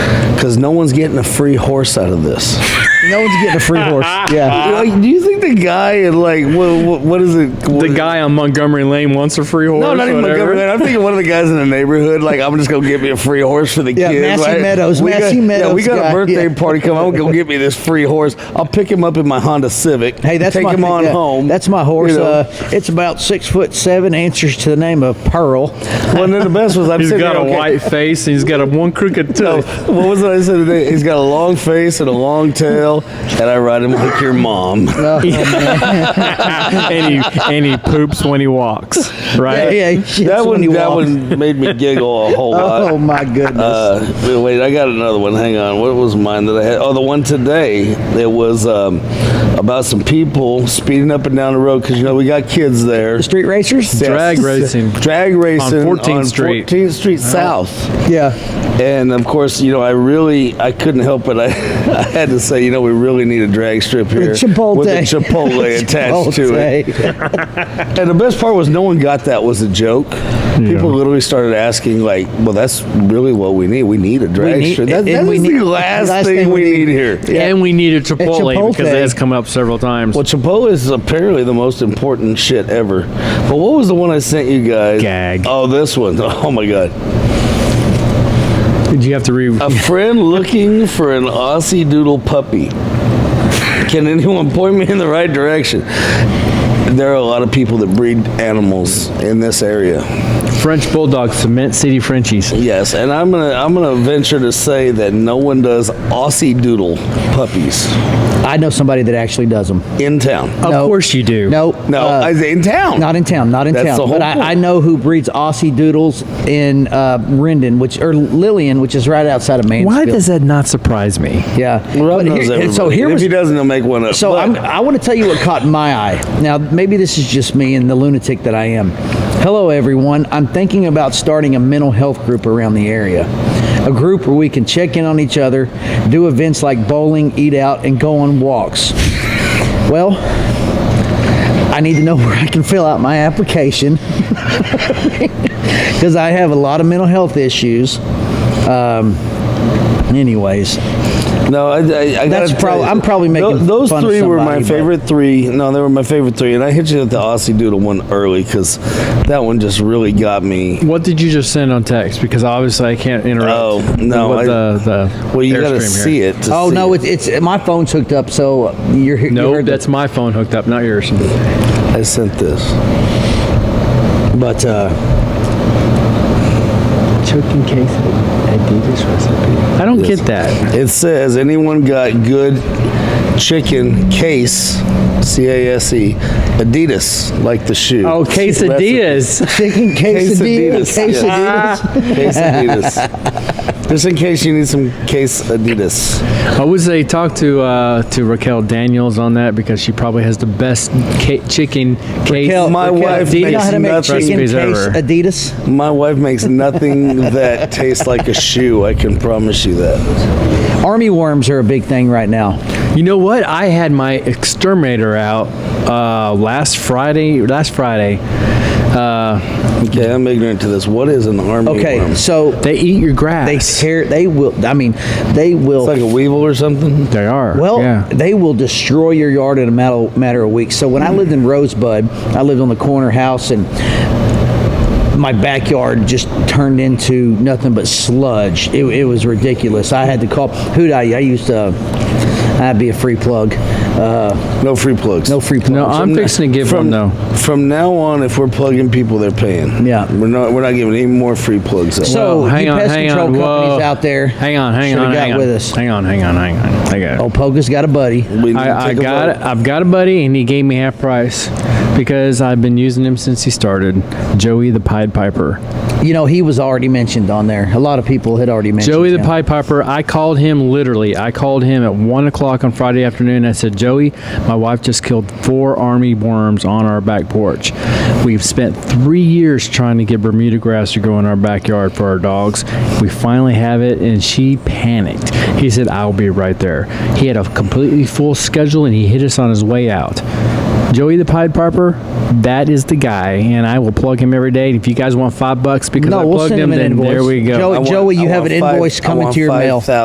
because no one's getting a free horse out of this. No one's getting a free horse. Yeah. Like, do you think the guy in like what, what, what is it? what The is- guy on Montgomery Lane wants a free horse. No, not even whatever. Montgomery. Lane. I'm thinking one of the guys in the neighborhood. Like, I'm just gonna get me a free horse for the Yeah, kids. Massey right? Meadows, We Massey got, Yeah, we Meadows got guy, a birthday yeah. party coming. I'm gonna go get me this free horse. I'll pick him up in my Honda Civic. Hey, that's take my him on yeah, home. That's my horse. You know? uh, it's about six foot seven. Answers to the name of Pearl. well, and then the best was I'm He's sitting got there, a okay, white face and he's got a one crooked No, toe. what was it I said today? He's got a long face and a long tail, and I ride him like your mom. and he and he poops when he walks. Yeah, Right? yeah, he shits that when one, he that walks. one made me giggle a whole lot. Oh my goodness. Uh, wait, wait, I got another one. Hang on. What was mine that I had? Oh, the one today. It was um, about some people speeding up and down the road because you know we got kids there. Street racers. Drag Yes. racing. Drag racing 14th Street. 14th Street South. Yeah. And of course, you know, I really, I couldn't help it. I, I had to say, you know, we really need a drag strip here Chipotle. with a Chipotle attached to it. Chipotle. And the best part was no one got that was a joke. People literally started asking like, "Well, that's really what we need. We need a drag need- strip. That, and that we is need- the last, thing, we need, here." And we need a Chipotle, because Chipotle. that has come up several times. Well, Chipotle is apparently the most important shit ever. But what was the one I sent you guys? Gag. Oh, this one. Oh my god. Did you have to read? A friend looking for an Aussie Doodle puppy. Can anyone point me in the right direction? There are a lot of people that breed animals in this area. French Bulldog Cement City Frenchies. Yes, and I'm gonna I'm gonna venture to say that no one does Aussie Doodle puppies I know somebody that actually does them. in town. Of No. course you do. No. no, uh, I say in town. Not in town, not in That's town. the whole but point. I, I know who breeds Aussie Doodles in uh, Rendon, which or Lillian, which is right outside of Mansfield. Why does that not surprise me? yeah? Rob knows But here- everybody. so here if was he doesn't, he'll make one up. so But I'm, I want to tell you what caught my eye. Now maybe this is just me and the lunatic that I am. Hello everyone. I'm thinking about starting a mental health group around the area. A group where we can check in on each other, do events like bowling, eat out, and go on walks. Well, I need to know where I can fill out my application because I have a lot of mental health issues. Um, anyways, no, I, I, I That's gotta prob- tell you, I'm probably making tho- those fun of three were my somebody, but- favorite three. No, they were my favorite three, and I hit you with the Aussie Doodle one early because that one just really got me. What did you just send on text? Because obviously I can't interrupt. Oh, no, what I- the, the Well, you gotta airstream here. see it. To Oh see no, it's, it's my phone's hooked up, so you're you No, heard the- that's my phone hooked up, not yours. I sent this. But uh, Choking case. I do this recipe. I don't get that. It says anyone got good chicken case, C A S E, Adidas, like the shoe. Oh, quesadillas. chicken quesadillas, Quesadillas, yes. quesadillas. Case Adidas. Just in case you need some case Adidas. I would say talk to uh, to Raquel Daniels on that because she probably has the best ca- chicken case. Raquel- My Raquel, wife do you know makes how to make nuts chicken recipes case ever. Adidas? My wife makes nothing that tastes like a shoe. I can promise you that. Army worms are a big thing right now. You know what? I had my exterminator out uh, last Friday. Last Friday, uh, Okay, I'm ignorant to this. What is an army Okay, worm? It's so they eat your they grass. tear. They will. I mean, they will. like a weevil or something. They are. Well, yeah. they will destroy your yard in a matter, matter of weeks. So when I lived in Rosebud, I lived on the corner house and my backyard just turned into nothing but sludge. It, it was ridiculous. I had to call who would I? I used to. I'd be a free plug. Uh, No free plugs. no free plug. No, I'm fixing to give from, one though. From now on, if we're plugging people, they're paying. Yeah. we're not we're not giving any more free plugs. Up. So- Whoa, you hang on, pest hang control on. companies Whoa. out there Hang on, hang shoulda on, got hang on. with us. Hang on, hang on, hang on. I got it. oh, Poga's got a buddy. we need to I, I take a got vote. it. I've got a buddy, and he gave me half price because I've been using him since he started. Joey the Pied Piper. You know, he was already mentioned on there. A lot of people had already mentioned Joey the him. Pied Piper. I called him literally. I called him at one o'clock on Friday afternoon. I said, Joey, my wife just killed four army worms on our back porch. We've spent three years trying to get Bermuda grass to grow in our backyard for our dogs. We finally have it, and she panicked. He said, I'll be right there. He had a completely full schedule, and he hit us on his way out. Joey the Pied Piper, that is the guy, and I will plug him every day. And if you guys want five bucks because No, I we'll plugged send him him, an then there invoice. we go. Joey- I want- you I have want an five- invoice I coming want to your mail. 5,000